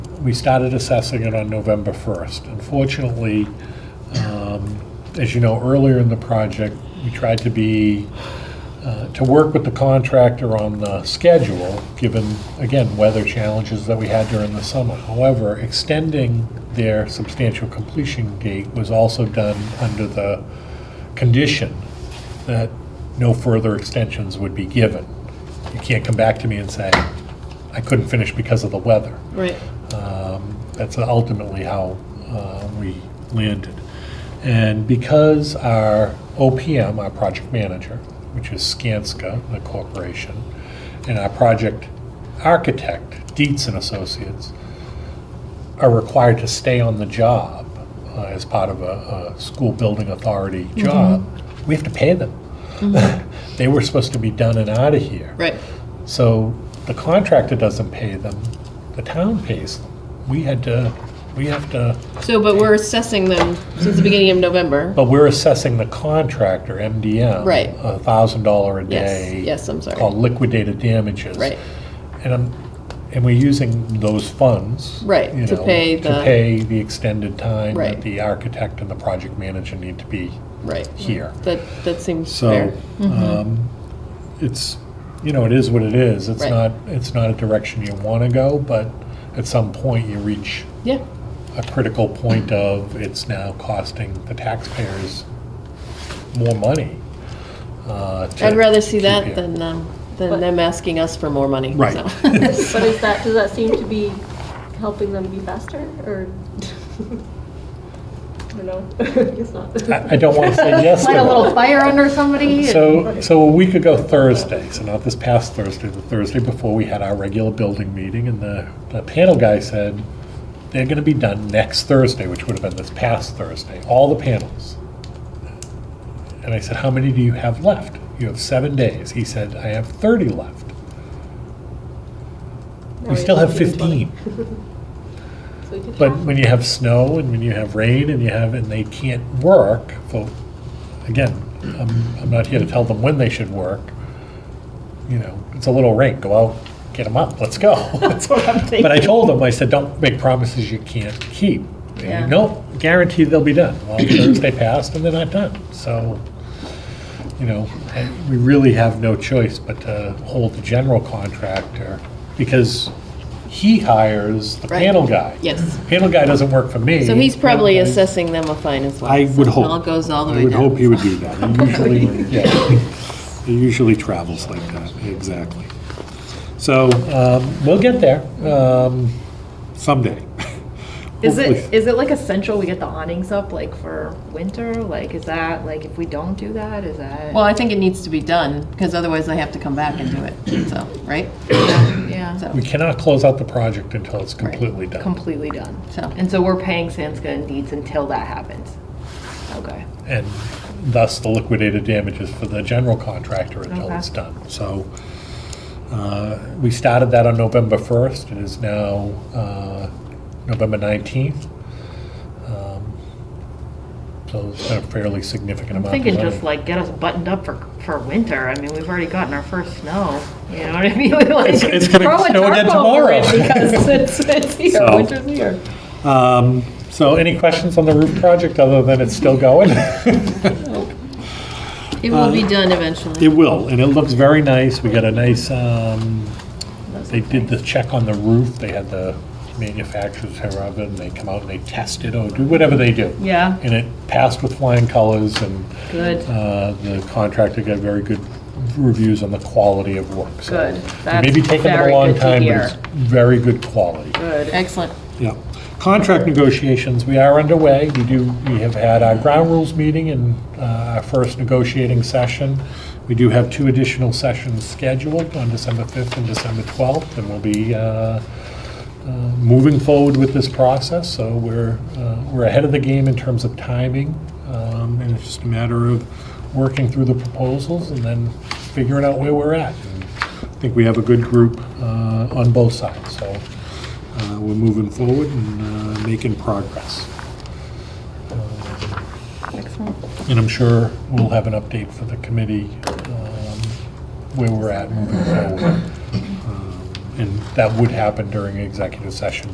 we started assessing it on November 1st. Unfortunately, um, as you know, earlier in the project, we tried to be, uh, to work with the contractor on the schedule, given, again, weather challenges that we had during the summer. However, extending their substantial completion date was also done under the condition that no further extensions would be given. You can't come back to me and say, I couldn't finish because of the weather. Right. Um, That's ultimately how uh, we landed. And because our OPM, our project manager, which is Skanska, the corporation, and our project architect, Dietz and Associates, are required to stay on the job uh, as part of a, a school building authority job, we have to pay them. They were supposed to be done and out of here. Right. So the contractor doesn't pay them, the town pays them. We had to, we have to, So, but we're assessing them since the beginning of November. but we're assessing the contractor, MDM. Right. A thousand dollar a Yes, day. yes, I'm sorry. Called liquidated damages. Right. And I'm, and we're using those funds. Right, you to know, pay the- To pay the extended time Right. that the architect and the project manager need to be Right. here. That, that seems So, fair. um, it's, you know, it is what it is. It's Right. not, it's not a direction you want to go, but at some point you reach Yeah, a critical point of it's now costing the taxpayers more money. uh, to I'd rather see keep that you. than, um, than But- them asking us for more money. Right. so. But is that, does that seem to be helping them be faster, or? I don't know, I guess not. I I don't want to say yes to Light a that. little fire under somebody? So, so a week ago Thursday, so not this past Thursday, the Thursday before, we had our regular building meeting, and the, the panel guy said, they're gonna be done next Thursday, which would have been this past Thursday, all the panels. And I said, how many do you have left? You have seven days. He said, I have thirty left. We still have fifteen. So we could But have- when you have snow and when you have rain and you have, and they can't work, well, again, I'm, I'm not here to tell them when they should work. You know, it's a little rain, go out, get them up, let's go. That's what I'm thinking. But I told them, I said, don't make promises you can't keep. Yeah. No, guaranteed they'll be done. Well, Thursday passed and they're not done. So, you know, I- we really have no choice but to hold the general contractor because he hires the Right. panel guy. Yes. Panel guy doesn't work for me. So he's probably Panel guy- assessing them a fine as well. I would So hope. It all goes all the way I would down. hope he would do that. He usually, yeah, he usually travels like that, exactly. So um, we'll get there um, someday. Is it, Hopefully. is it like essential we get the awnings up like for winter? Like, is that, like, if we don't do that, is that? Well, I think it needs to be done, because otherwise they have to come back and do it, so, right? yeah, So, We cannot close out the project until it's completely done. completely done. So- And so we're paying Sanska and Deeds until that happens. Okay. And thus the liquidated damages for the general contractor until Okay. it's done. So uh, we started that on November 1st. It is now uh, November 19th. Um, So it's been a fairly significant I'm amount of money. thinking just like get us buttoned up for, for winter. I mean, we've already gotten our first snow. You know what I mean? Like, It's- it's gonna throw a snow again tarp over it tomorrow. Because it's, it's here, So- winter's here. Um, So any questions on the roof project, other than it's still going? It will be done uh, It eventually. will, and it looks very nice. We got a nice, um, they did the check on the roof. They had the manufacturers here of it, and they come out and they test it, or do whatever they do. Yeah, And it passed with flying colors, and good. uh, the contractor got very good reviews on the quality of work. So Good. That's Maybe taking them a very long good to time, but hear. it's very good quality. Good. Excellent. Yeah. Contract negotiations, we are underway. We do, we have had our ground rules meeting and uh, our first negotiating session. We do have two additional sessions scheduled on December 5th and December 12th, and we'll be uh, uh, moving forward with this process. So we're, uh, we're ahead of the game in terms of timing, um, and it's just a matter of working through the proposals and then figuring out where we're at. And I think we have a good group uh, on both sides, so uh, we're moving forward and uh, making progress. Um, And I'm sure we'll have an update for the committee, um, where we're at moving forward. Um, And that would happen during executive session